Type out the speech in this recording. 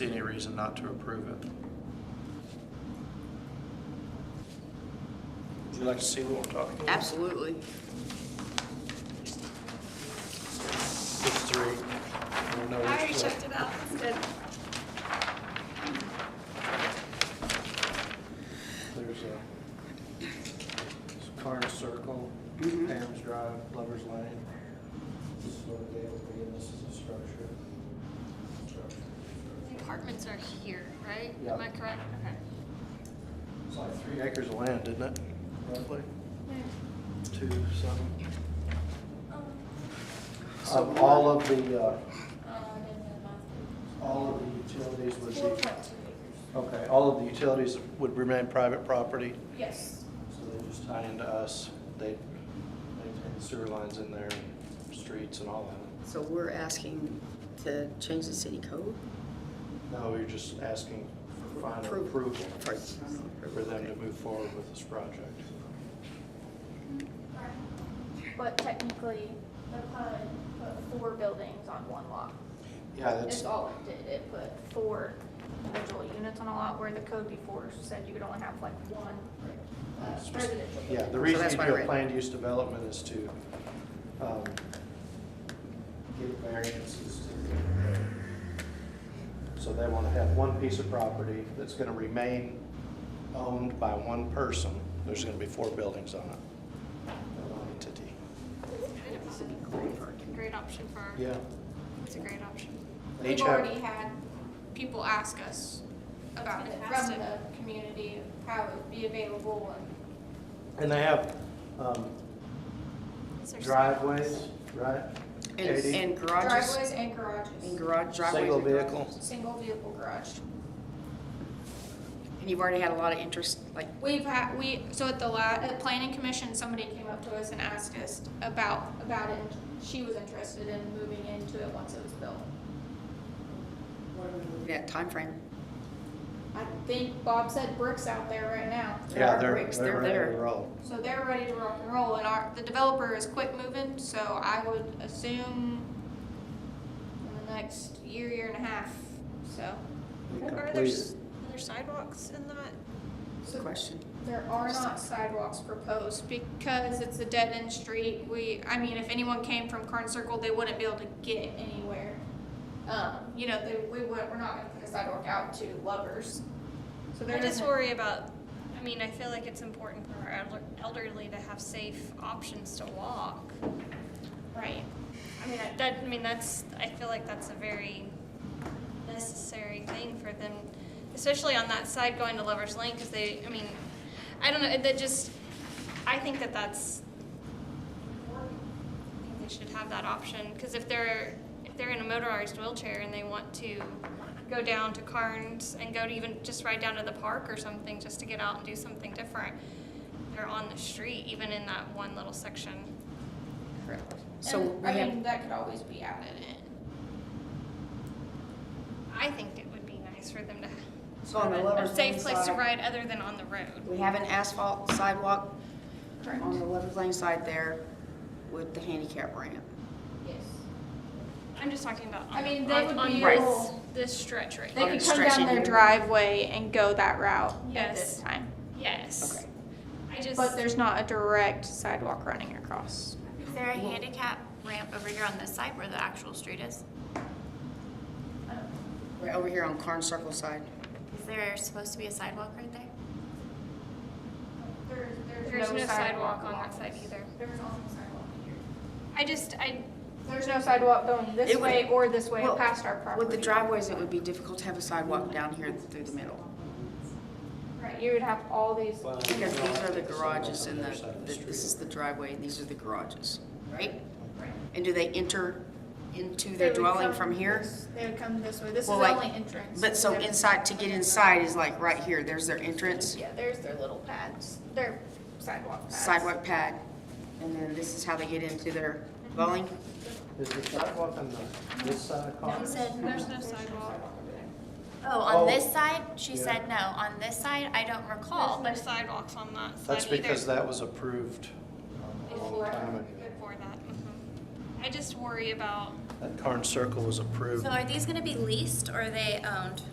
see any reason not to approve it. Would you like to see what we're talking about? Absolutely. It's three. I don't know I already which one. checked it out. It's good. There's a it's Carnes Circle, Pam's Drive, Lover's Lane. This is what they would be, and this is the structure. Structure, The structure. apartments are here, right? Yeah. Am I correct? Okay. It's like three acres of land, isn't it? Roughly, two, something. Um, all of the, uh, all of the utilities would be, okay, all of the utilities would remain private property. Yes. So they just tie into us, they maintain the sewer lines in there, streets and all that. So we're asking to change the city code? No, we are just asking for final Approve. approval For- for them to move forward with this project. But technically, the PUD put four buildings on one lot. Yeah, that's, It's all it did, it put four individual units on a lot where the code before said you could only have like one uh, residential. yeah, building. the reason that's you why I do a read it. planned use development is to, um, give variances to. So they want to have one piece of property that's going to remain owned by one person. There's going to be four buildings on it, one entity. Great option for, our- Yeah. it's a great option. They each We've have, already had People ask us about it. from the community how it would be available and and they have um, Is there driveways, right? And, Katie? and garages, driveways and and garages, garage driveways. Single and garages. vehicle. single vehicle garage. And you've already had a lot of interest, like, We've had, we, so at the la, at planning commission, somebody came up to us and asked us about, About it, she was interested in moving into it once it was built. that timeframe. I think Bob said bricks out there right now. There are bricks, they're ready to there. roll. So they're ready to rock and role roll and and our, the developer is quick moving, so I would assume in the next year, year and a half, so. They Are there, complete- s- are there sidewalks in that? Question. there are not sidewalks proposed. It's because it's a dead end street, we, I mean, if anyone came from Carn Circle, they wouldn't be able to get anywhere. Um, You know, they, we would, we're not gonna put a sidewalk out to lovers. So there I just isn't- worry about, I mean, I feel like it's important for our elder- elderly to have safe options to walk. Right. I mean, I- that, I mean, that's, I feel like that's a very necessary thing for them, especially on that side going to Lover's Lane, because they, I mean, I don't know, that just, I think that that's, I think they should have that option, because if they're, if they're in a motorized wheelchair and they want to go down to Carnes and go to even, just ride down to the park or something, just to get out and do something different, they're on the street, even in that one little section. Correct. So And, we I mean, have, that could always be added in. I think it would be nice for them to So on the have a- a Lover's Lane safe place to side- ride other than on the road. we have an asphalt sidewalk Correct. on the Lover's Lane side there with the handicap ramp. Yes. I'm just talking about I on- mean, they on- would on be this- able- This stretch right They here. Okay, could come stretch down it. their driveway and go that route at Yes. this time. Yes. Okay. I just, But there's not a direct sidewalk running across. Is there a handicap ramp over here on this side where the actual street is? Right over here on Carn Circle side. Is there supposed to be a sidewalk right there? There's, there's no sidewalk on that side either. There's also sidewalk here. I just, I, There's no sidewalk going this It would- way or this way Well, past our property. With the driveways, it would be difficult to have a sidewalk down here through the middle. Right, you would have all these. Well, Because no, these I are the think it's on garages and other the, side of the- this is street. the driveway and these are the garages, right? Right. And do they enter into They their would dwelling come from here? this- They would come this way. This is Well, the like- only entrance. But so There's- inside, to get inside is like right here, there's their entrance, Yeah, there's their little pads, their sidewalk pads. sidewalk pad, and then this is how they get into their dwelling? Is the sidewalk on the, this side of Carnes? there's no sidewalk. Oh, Oh. on this side? She Yeah. said no. On this side, I don't recall, There's no but sidewalks on that side That's either. because that was approved a long time ago. Before that, mhm. I just worry about That Carnes Circle was approved. so are these gonna be leased or are they owned?